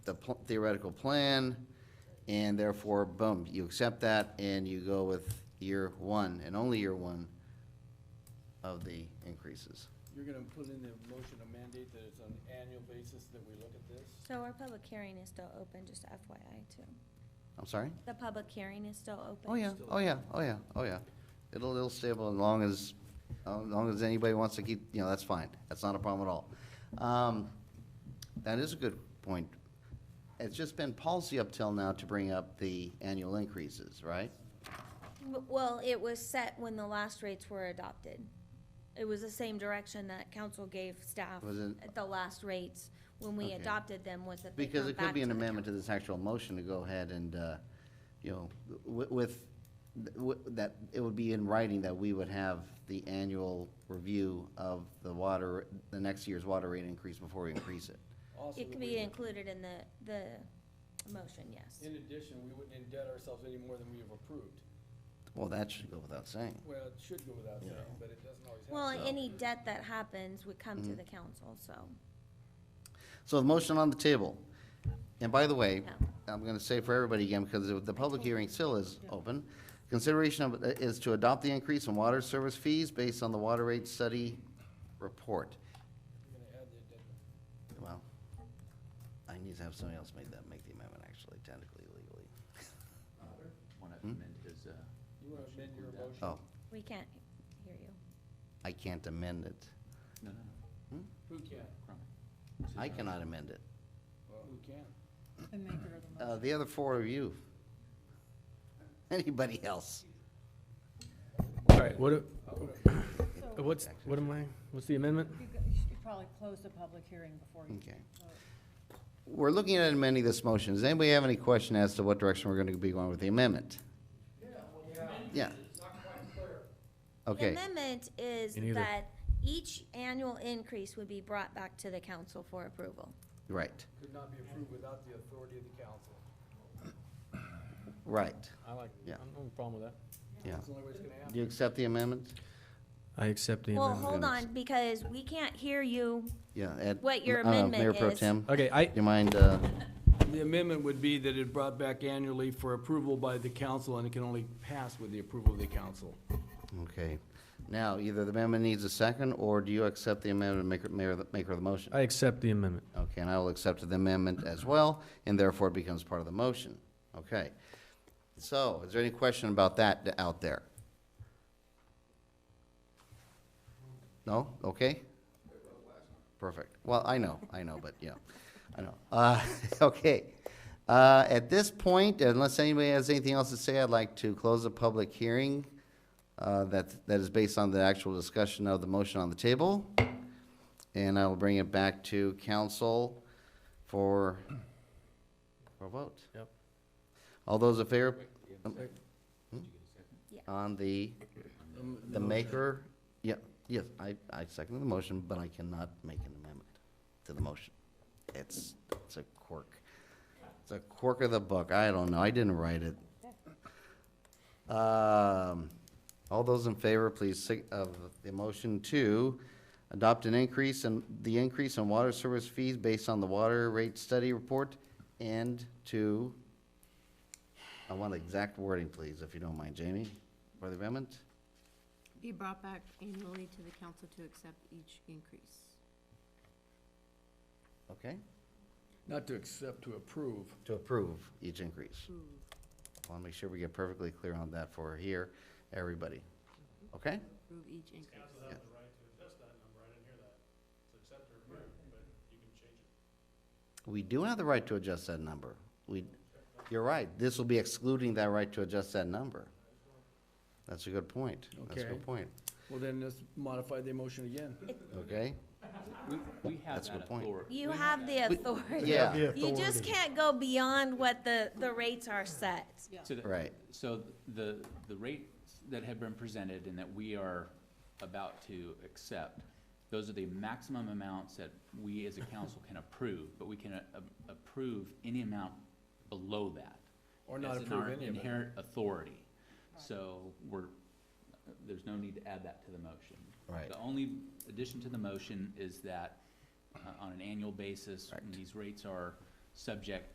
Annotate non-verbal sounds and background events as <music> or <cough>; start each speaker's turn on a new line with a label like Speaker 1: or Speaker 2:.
Speaker 1: the pl- theoretical plan, and therefore, boom, you accept that, and you go with year one, and only year one of the increases.
Speaker 2: You're gonna put in the motion a mandate that it's on an annual basis that we look at this?
Speaker 3: So our public hearing is still open, just FYI too.
Speaker 1: I'm sorry?
Speaker 3: The public hearing is still open.
Speaker 1: Oh, yeah, oh, yeah, oh, yeah, oh, yeah. It'll, it'll stable as long as, as long as anybody wants to keep, you know, that's fine. That's not a problem at all. Um, That is a good point. It's just been policy up till now to bring up the annual increases, right?
Speaker 3: W- Well, it was set when the last rates were adopted. It was the same direction that council gave staff
Speaker 1: Was it-
Speaker 3: at the last rates when we
Speaker 1: Okay.
Speaker 3: adopted them was that they
Speaker 1: Because
Speaker 3: come
Speaker 1: it could
Speaker 3: back
Speaker 1: be
Speaker 3: to
Speaker 1: an
Speaker 3: the
Speaker 1: amendment to
Speaker 3: council.
Speaker 1: this actual motion to go ahead and, uh, you know, wi- with, wi- that, it would be in writing that we would have the annual review of the water, the next year's water rate increase before we increase it.
Speaker 2: Also,
Speaker 3: It
Speaker 2: that
Speaker 3: could
Speaker 2: we
Speaker 3: be
Speaker 2: would-
Speaker 3: included in the, the motion, yes.
Speaker 2: In addition, we wouldn't indebt ourselves any more than we have approved.
Speaker 1: Well, that should go without saying.
Speaker 2: Well, it should go without saying, but it doesn't always happen.
Speaker 3: Well,
Speaker 1: So-
Speaker 3: any debt that happens would come
Speaker 1: Mm-hmm.
Speaker 3: to the council, so,
Speaker 1: So the motion on the table, and by the way,
Speaker 3: Yeah.
Speaker 1: I'm gonna say for everybody again, because the- the public hearing still is open. Consideration of, is to adopt the increase in water service fees based on the water rate study report.
Speaker 2: You're gonna add the addendum.
Speaker 1: Well, I need to have somebody else make that, make the amendment actually technically legally.
Speaker 4: Want to amend his, uh,
Speaker 2: You wanna amend your motion?
Speaker 1: Oh,
Speaker 3: we can't hear you.
Speaker 1: I can't amend it.
Speaker 4: no, no, no, uh,
Speaker 2: Who can?
Speaker 4: Crombie.
Speaker 1: I cannot amend it.
Speaker 2: Who can?
Speaker 5: The maker of the motion.
Speaker 1: Uh, the other four of you. <laughs> Anybody else?
Speaker 6: All right, what,
Speaker 5: So
Speaker 6: <coughs> what's, what am I, what's the amendment?
Speaker 5: you g- you should probably close the public hearing before you
Speaker 1: Okay.
Speaker 5: vote.
Speaker 1: We're looking at amending this motion. Does anybody have any question as to what direction we're gonna be going with the amendment? Yeah.
Speaker 3: The
Speaker 1: Okay,
Speaker 3: amendment is
Speaker 6: Me neither.
Speaker 3: that each annual increase would be brought back to the council for approval.
Speaker 1: right,
Speaker 2: Could not be approved without the authority of the council.
Speaker 1: right,
Speaker 6: I like,
Speaker 1: Yeah.
Speaker 6: I'm, no problem with
Speaker 1: yeah.
Speaker 2: That's the only way it's gonna happen.
Speaker 1: Do you accept the amendment?
Speaker 6: that. I accept the
Speaker 3: Well,
Speaker 6: amendment.
Speaker 3: hold
Speaker 1: Amendments.
Speaker 3: on, because we can't hear you.
Speaker 1: Yeah, Ed?
Speaker 3: What your
Speaker 1: uh, Mayor
Speaker 3: amendment
Speaker 1: Pro
Speaker 3: is.
Speaker 1: Tem,
Speaker 6: Okay, I,
Speaker 1: do you mind, uh,
Speaker 2: The amendment would be that it brought back annually for approval by the council, and it can only pass with the approval of the council.
Speaker 1: okay. Now, either the amendment needs a second, or do you accept the amendment, maker, mayor, maker of the motion?
Speaker 6: I accept the amendment.
Speaker 1: Okay, and I will accept the amendment as well, and therefore it becomes part of the motion. Okay. So, is there any question about that th- out there? No? Okay? Perfect. Well, I know, I know, but yeah, I know. Uh, <laughs> okay. Uh, at this point, unless anybody has anything else to say, I'd like to close the public hearing, uh, that, that is based on the actual discussion of the motion on the table. And I will bring it back to council for, for a vote.
Speaker 6: Yep.
Speaker 1: All those in favor Hmm?
Speaker 3: Yeah.
Speaker 1: on the, the maker, yeah, yes, I, I second the motion, but I cannot make an amendment to the motion. It's, it's a quirk. It's a quirk of the book. I don't know. I didn't write it. Um, all those in favor, please, sig- of the motion to adopt an increase in, the increase in water service fees based on the water rate study report and to, I want exact wording, please, if you don't mind, Jamie, for the amendment.
Speaker 7: Be brought back annually to the council to accept each increase.
Speaker 1: Okay?
Speaker 2: Not to accept, to approve.
Speaker 1: To approve each increase. I want to make sure we get perfectly clear on that for here, everybody. Okay?
Speaker 7: Approve each increase.
Speaker 1: We do have the right to adjust that number. We, you're right, this will be excluding that right to adjust that number. That's a good point. That's a
Speaker 2: Okay.
Speaker 1: good point,
Speaker 2: Well, then let's modify the motion again.
Speaker 1: okay?
Speaker 4: We have
Speaker 1: That's a
Speaker 4: that
Speaker 1: good point.
Speaker 4: authority.
Speaker 3: You have the authority.
Speaker 1: Yeah.
Speaker 3: You just can't go beyond what the, the rates are set.
Speaker 4: So the-
Speaker 1: Right.
Speaker 4: So the, the rates that have been presented and that we are about to accept, those are the maximum amounts that we as a council can approve, but we can a- a- approve any amount below that.
Speaker 2: Or not
Speaker 4: That's in
Speaker 2: approve
Speaker 4: our
Speaker 2: any of it.
Speaker 4: Inherent authority. So we're, there's no need to add that to the motion.
Speaker 1: Right.
Speaker 4: The only addition to the motion is that uh, on an annual basis, when
Speaker 1: Right.
Speaker 4: these rates are subject